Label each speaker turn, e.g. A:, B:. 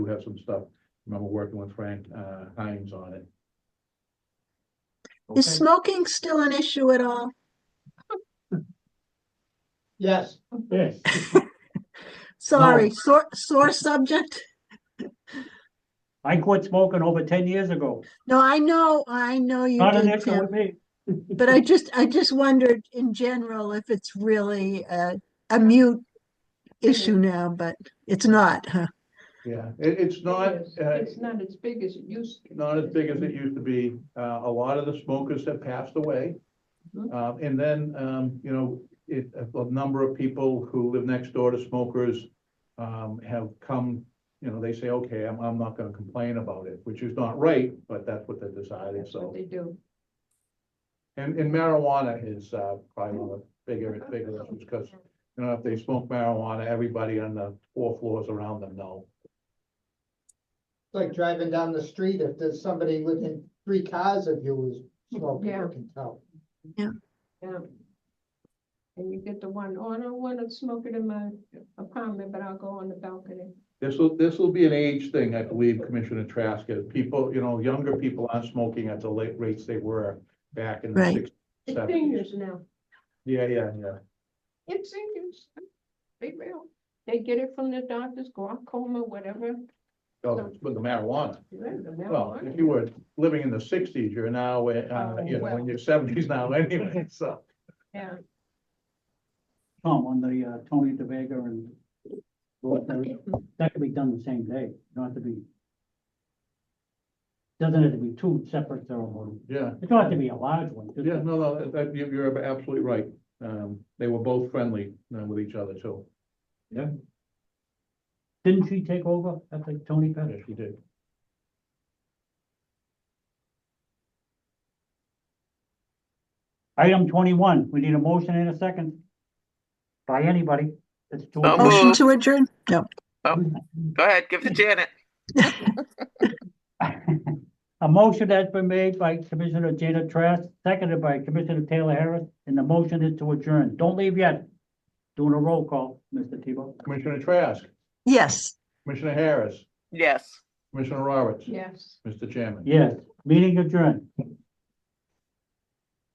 A: do have some stuff. Remember working with Frank uh, Hines on it.
B: Is
A: Okay.
B: smoking still an issue at all?
A: Yes. Yes.
B: Sorry, sore, sore subject.
C: I quit smoking over ten years ago.
B: No, I know, I know you
C: Not an
B: did,
C: issue
B: Tim,
C: with me.
B: but I just, I just wondered in general if it's really a, a mute issue now, but it's not, huh?
A: Yeah, it, it's not,
D: It is.
A: uh,
D: It's not as big as it used to. be.
A: not as big as it used to be. Uh, a lot of the smokers have passed away.
D: Mhm.
A: Uh, and then, um, you know, it, a number of people who live next door to smokers, um, have come, you know, they say, okay, I'm, I'm not gonna complain about it, which is not right, but that's what they're deciding,
D: That's what
A: so.
D: they do.
A: And, and marijuana is, uh, probably one of the bigger, bigger issues, because, you know, if they smoke marijuana, everybody on the four floors around them know.
E: Like driving down the street, if there's somebody within three cars of you who's smoking,
D: Yeah.
E: you can tell.
D: Yeah. And you get the one, oh, I don't wanna smoke it in my apartment, but I'll go on the balcony.
A: This will, this will be an age thing, I believe, Commissioner Trask, as people, you know, younger people aren't smoking at the late rates they were back in the
B: Right.
A: sixties.
D: It's
A: Seven.
D: seniors now.
A: Yeah, yeah, yeah.
D: It's seniors. They will. They get it from the doctors, glaucoma, whatever.
A: Oh, With the marijuana. Well, if you
D: Well,
A: were living in the sixties, you're now, uh,
D: Oh,
A: you know,
D: well.
A: in your seventies now anyway, so.
D: Yeah,
C: Tom, on the uh, Tony DeVega and that could be done the same day, not to be. Doesn't have to be two separate ceremonies.
A: Yeah,
C: It don't have to be a large one. just-
A: yeah, no, no, that, you- you're absolutely right. Um, they were both friendly uh, with each other, too.
C: Didn't she take over after Tony passed?
A: Yes, you did.
C: Item twenty-one, we need a motion and a second. By anybody. It's two.
F: So moved.
B: Motion to adjourn? No.
F: Go ahead, give it to Janet.
C: A motion has been made by Commissioner Jada Trask, seconded by Commissioner Taylor Harris, and the motion is to adjourn. Don't leave yet. Doing a roll call, Mr. Tebow.
A: Commissioner Trask,
B: Yes.
A: Commissioner Harris,
F: Yes.
A: Commissioner Roberts,
D: yes.
A: Mr. Chairman.
C: Yes, meeting adjourned.